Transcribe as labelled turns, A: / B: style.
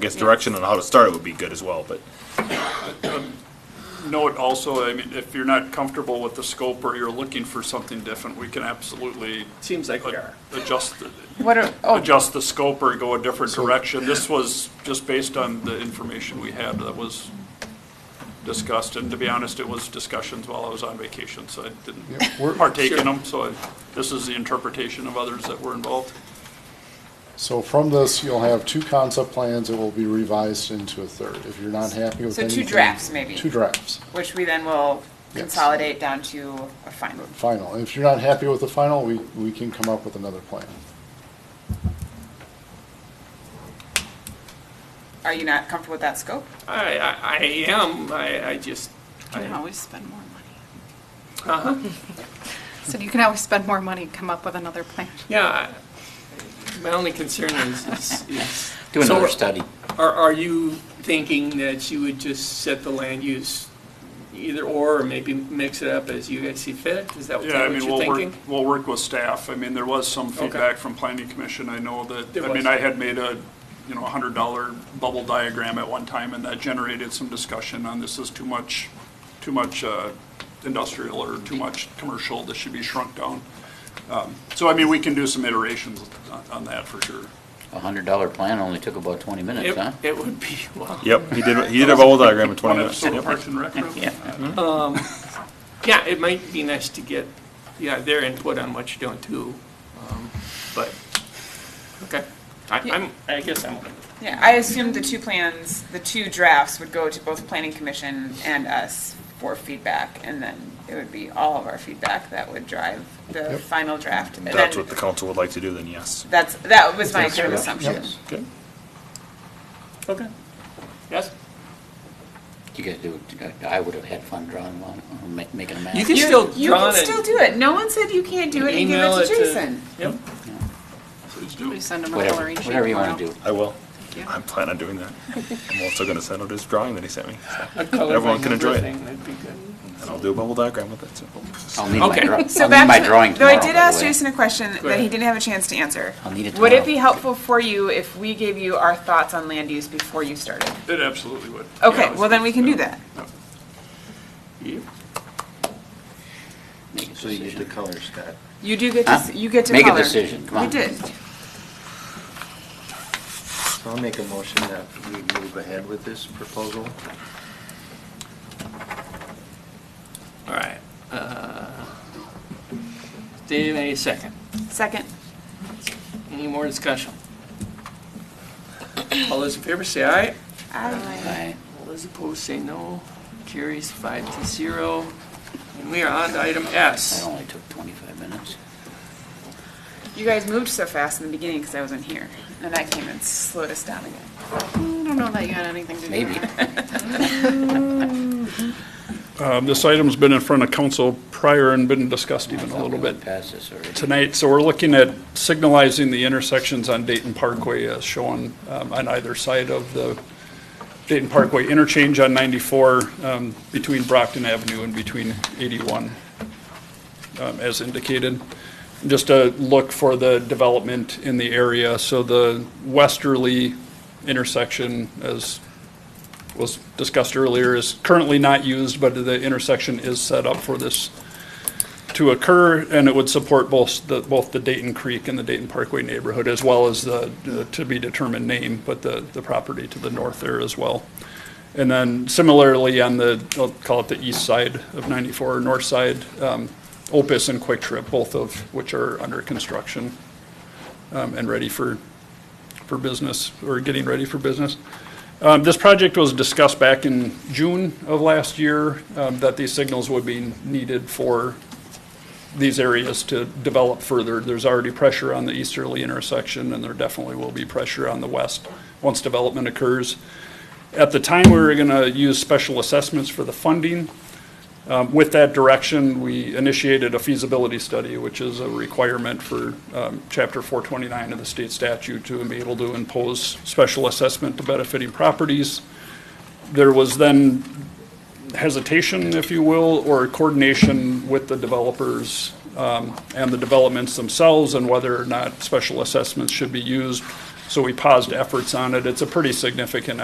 A: I guess direction on how to start it would be good as well, but
B: Note also, I mean, if you're not comfortable with the scope or you're looking for something different, we can absolutely
C: Seems like we are.
B: adjust, the-
D: What are, oh,
B: adjust the scope or go a different direction. This was just based on the information we had that was discussed, and to be honest, it was discussions while I was on vacation, so I
E: Yep, we're-
B: didn't partake
C: Sure.
B: in them, so I- this is the interpretation of others that were involved.
E: So from this, you'll have two concept plans that will be revised into a third. If you're not happy with
D: So two
E: anything.
D: drafts, maybe.
E: Two drafts,
D: which we then will
E: Yes.
D: consolidate down to a final.
E: final. If you're not happy with the final, we, we can come up with another plan.
D: Are you not comfortable with that scope?
C: I, I, I am, I, I just,
F: You can
C: I-
F: always spend more money. So you can always spend more money, come up with another plan.
C: yeah, I- my only concern is, is- is.
G: Do
C: So
G: another study.
C: Are, are you thinking that you would just set the land use either or, or maybe mix it up as you guys see fit? Is that what
B: Yeah, I
C: what
B: mean,
C: you're
B: we'll work,
C: thinking?
B: we'll work with staff. I mean, there was some
C: Okay.
B: feedback from planning commission. I know that,
C: There
B: I mean,
C: was.
B: I had made a, you know, a hundred dollar bubble diagram at one time and that generated some discussion on this is too much, too much uh, industrial or too much commercial. This should be shrunk down. Um, So I mean, we can do some iterations on- on that for sure.
G: A hundred dollar plan only took about twenty minutes, huh?
C: It, it would be, well.
A: yep, he did, he did a bubble diagram in
B: One
A: 20 minutes.
B: episode
A: Yep.
B: of Parks and Rec. Room.
G: Yeah.
C: Yeah, it might be nice to get, yeah, their input on what you're doing too, um, but, okay. I, I'm, I guess I'm,
D: Yeah, I assumed the two plans, the two drafts would go to both planning commission and us for feedback, and then it would be all of our feedback that would drive the final draft. And
A: That's
D: then
A: what the council would like to do, then yes.
D: That's, that was my kind of
E: Yep.
D: assumption.
A: Okay.
C: okay. Yes?
G: You guys do, I would have had fun drawing one, or ma- making a map.
C: You can
D: You-
C: still
D: You
C: draw
D: can
C: it and-
D: still do it. No one said you can't do it and give
C: Email
D: it to
C: it to-
D: Jason.
C: Yep.
B: Please do.
F: We send them a
G: Whatever,
F: Hillary sheet
G: whatever you want to
F: tomorrow.
G: do.
A: I will.
F: you.
A: I'm planning on doing that. I'm also gonna send out his drawing that he sent me,
C: A color
A: Everyone
C: by
A: can
C: number
A: enjoy it.
C: thing, that'd be good.
A: and I'll do a bubble diagram with it, so.
G: I'll need my,
C: Okay.
G: draw- I'll need
D: So back
G: my
D: to-
G: drawing
D: though
G: tomorrow,
D: I did
G: by the
D: ask
G: way.
D: Jason a question that he
C: ahead.
D: didn't have a chance to answer.
G: I'll need it
D: Would it
G: tomorrow.
D: be helpful for you if we gave you our thoughts on land use before you started?
B: It absolutely would.
D: Okay,
B: Yeah,
D: well then we can do that.
C: Yep.
G: Make a decision.
H: colors, Scott.
D: You do get to,
G: Huh?
D: s- you get to
G: Make a
D: color.
G: decision, come
D: We
G: on.
D: did.
H: I'll make a motion that we move ahead with this proposal.
C: All right. uh, Dave, any second?
D: Second.
C: Any more discussion? All those in favor say aye.
D: Aye.
G: Aye.
C: All those opposed say no. Carries five to zero. And we are on to item
G: That
C: S.
G: only took twenty-five minutes.
D: You guys moved so fast in the beginning because I wasn't here. And that came and slowed us down again.
F: I don't know that you had anything to do
G: Maybe.
F: with it.
B: Um, This item's been in front of council prior and been discussed even a little bit
G: Pass this already.
B: tonight. So we're looking at signalizing the intersections on Dayton Parkway as shown um, on either side of the Dayton Parkway interchange on 94 um, between Brockton Avenue and between 81, um, as indicated. Just a look for the development in the area. So the westerly intersection, as was discussed earlier, is currently not used, but the intersection is set up for this to occur, and it would support both the, both the Dayton Creek and the Dayton Parkway neighborhood, as well as the the to-be-determined name, but the, the property to the north there as well. And then similarly, on the, I'll call it the east side of 94, or north side, um, Opus and Quick Trip, both of which are under construction um, and ready for, for business, or getting ready for business. Um, This project was discussed back in June of last year, um, that these signals would be needed for these areas to develop further. There's already pressure on the easterly intersection, and there definitely will be pressure on the west once development occurs. At the time, we were going to use special assessments for the funding. Um, With that direction, we initiated a feasibility study, which is a requirement for um, Chapter 429 of the state statute to be able to impose special assessment to benefiting properties. There was then hesitation, if you will, or coordination with the developers um, and the developments themselves and whether or not special assessments should be used. So we paused efforts on it. It's a pretty significant